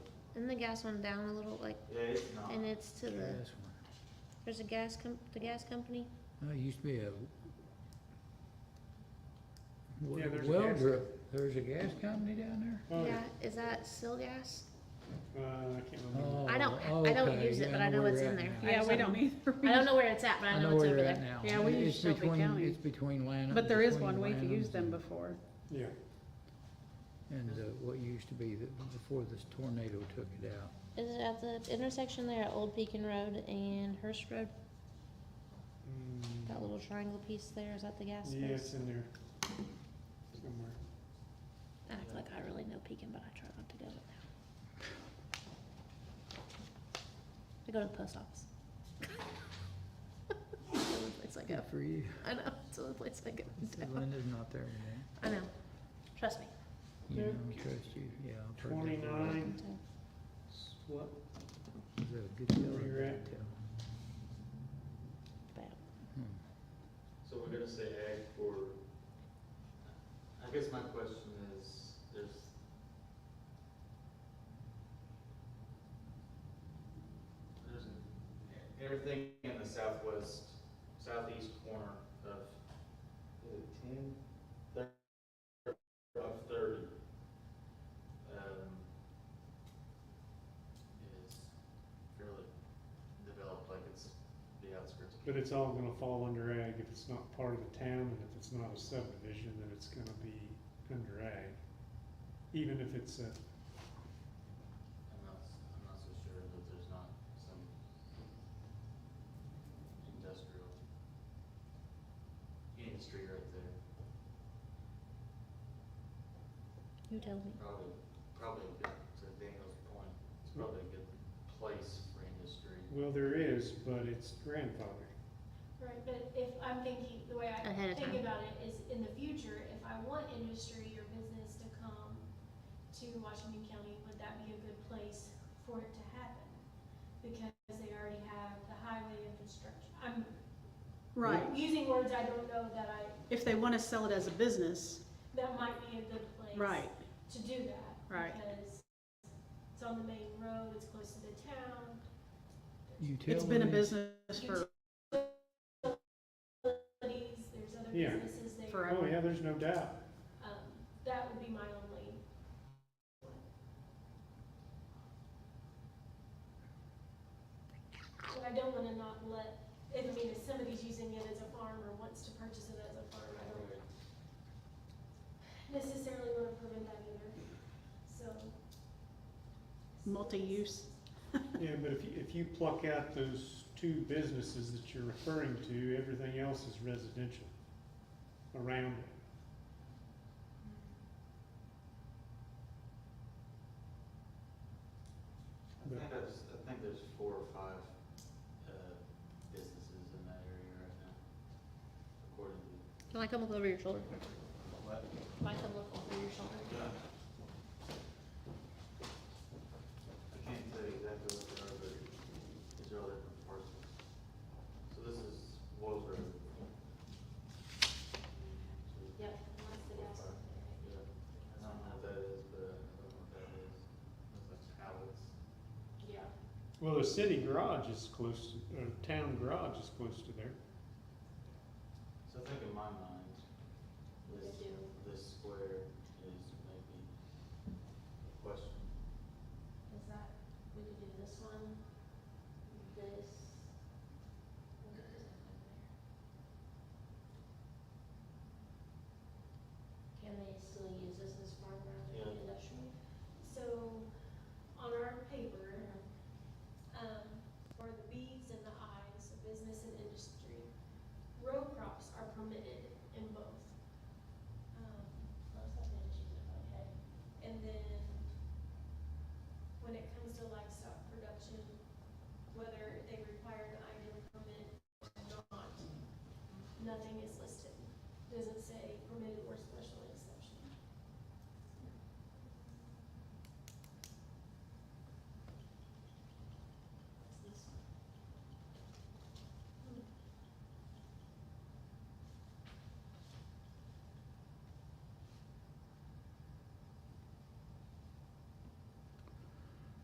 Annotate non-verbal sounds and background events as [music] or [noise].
Isn't the gas one down a little, like, Yeah, it's not. and it's to the, Gas one. there's a gas com, the gas company? No, Uh, it used to be a Yeah, w- there's a gas welder, there's a gas company down Oh, Yeah, is that still gas? Uh, I can't there? remember. I don't- Oh, I don't okay, use it, yeah, but I know where it's you're in at there. now. I Yeah, just we don't- don't either. I don't know where it's at, but I know it's over where you're at there. now. Yeah, we It's use Shelby between- County. It's between Lanham. But there is between one way to Lanham's use them and- before. Yeah, And uh, what used to be, the- before this tornado took it out. Is it at the intersection there at Old Pekin Road and Hurst Road? Mm, That little triangle piece there, is that the gas yeah, it's place? in there somewhere. I act like I really know Pekin, but I try not to go there. I go to the post office. [laughs] It's the only place I go. Good for you. I know, it's the only place I go. Said Linda's not there today. I know, trust me. You Yeah. know, trust you, yeah. I've heard that. Twenty-nine, So- what, Is that a good deal or a Where you're bad at. deal? Bad. Hmm. So we're gonna say ag for, I guess my question is, there's. There's, everything in the southwest, southeast corner of, is it ten? Thir- Of thirty. Um. Is fairly developed, like it's the outskirts. of but it's all gonna fall under ag if it's not part of the town, and if it's not a subdivision, then it's gonna be under ag. Even if it's a, I'm not, I'm not so sure that there's not some industrial industry right there, You tell me. probably, probably a good, to Daniel's point, it's probably a good place for industry. well, there is, but it's grandfathered. Right, but if I'm thinking, the way I Ahead of think time. about it is in the future, if I want industry or business to come to Washington County, would that be a good place for it to happen? Because they already have the highway infrastructure. I'm Right. using words I don't know that I, If they want to sell it as a business, that might be a good place. right, To do that. Right. Because it's on the main road, it's close to the town. You tell it's been a me. business for, Utilities, there's other Yeah. businesses there. Forever. Oh, yeah, there's no doubt. Um, that would be my only But I don't wanna not let, I mean, if somebody's using it as a farm or wants to purchase it as a farm, I don't necessarily wanna prevent that either, so. multi-use. Yeah, but if you, if you pluck out those two businesses that you're referring to, everything else is residential around it. I think there's, I think there's four or five, uh, businesses in that area right now, according to. Can I come look over your shoulder? Can I come look over your shoulder? I can't tell you exactly what they are, but these are all different parcels. So this is Wells Road. Yep, that's the gas one. Yeah, I don't know what that is, but I don't know what that is. That's like pallets. Yeah. Well, the city garage is close, or town garage is close to there. So I think in my mind, this, They do. this square is maybe a question. Is that, we could do this one, this. Can they still use this as farm ground Yeah. industrial? So, on our paper, um, for the Bs and the Is, so business and industry, row crops are permitted in both. Um, And then, when it comes to livestock production, whether they require an item permit or not, nothing is listed. Doesn't say permitted or